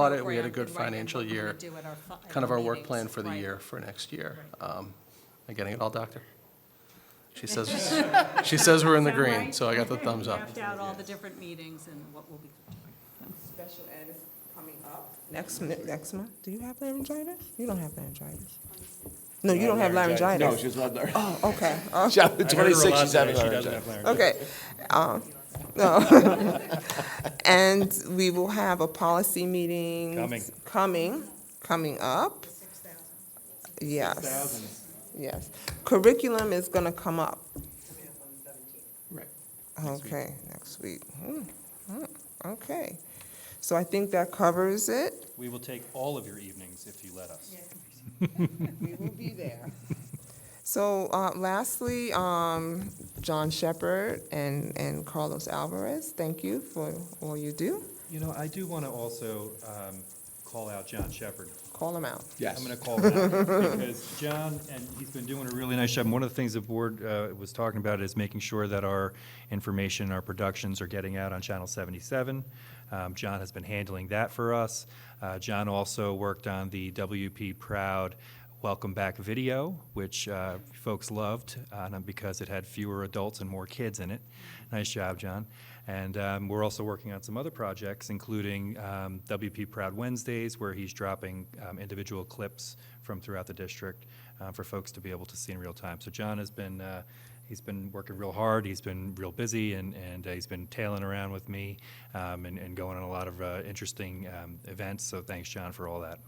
audit, we had a program good and write in financial what we're year, gonna do at our fi- at kind of our work meetings, plan for the right. year, for next year. Right. Um, Am I getting it all, Doctor? She says, she says we're in the Sound green, right? so I got the thumbs up. Mapped out all the different meetings and what will be. Special ed is coming up. Next, mi- next month, do you have laryngitis? You don't have laryngitis. No, you don't have No, laryngitis. she's not there. Oh, okay, uh, She's out at I heard her a 26, lot she's having today. She doesn't laryngitis. have laryngitis. okay. Um, no. And we will have a policy meeting. Coming. Coming, coming up. Yes, yes. Curriculum is gonna come up. Right. Okay, next week. Hmm, hmm, Okay. So I think that covers it. We will take all of your evenings if you let us. We will be there. So uh, lastly, um, John Shepherd and, and Carlos Alvarez, thank you for all you do. You know, I do want to also um, call out John Shepherd. Call them out. Yes. I'm going to call him out because John, and he's been doing a really nice job. And One of the things the board uh, was talking about is making sure that our information, our productions are getting out on Channel 77. Um, John has been handling that for us. Uh, John also worked on the WP Proud Welcome Back video, which uh, folks loved uh, and because it had fewer adults and more kids in it. Nice job, John. And um, we're also working on some other projects, including um, WP Proud Wednesdays, where he's dropping um, individual clips from throughout the district uh, for folks to be able to see in real time. So John has been, uh, he's been working real hard, he's been real busy, and, and uh, he's been tailing around with me um, and, and going on a lot of uh, interesting um, events. So thanks, John, for all that.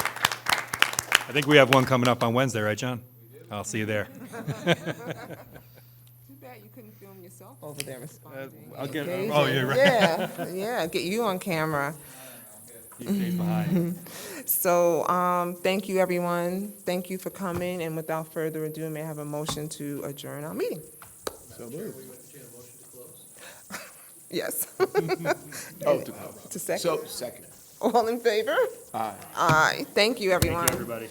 I think we have one coming up on Wednesday, right, John? I'll see you there. Too bad you couldn't film yourself over there responding. I'll get, Engaging. oh, you're right. Uh, Yeah, yeah, get you on camera. He stays behind. So, um, thank you, everyone. Thank you for coming, and without further ado, may I have a motion to adjourn our meeting? Yes. Oh, to- To second. So, second. All in favor? Aye. Aye. Thank you, everyone. Everybody.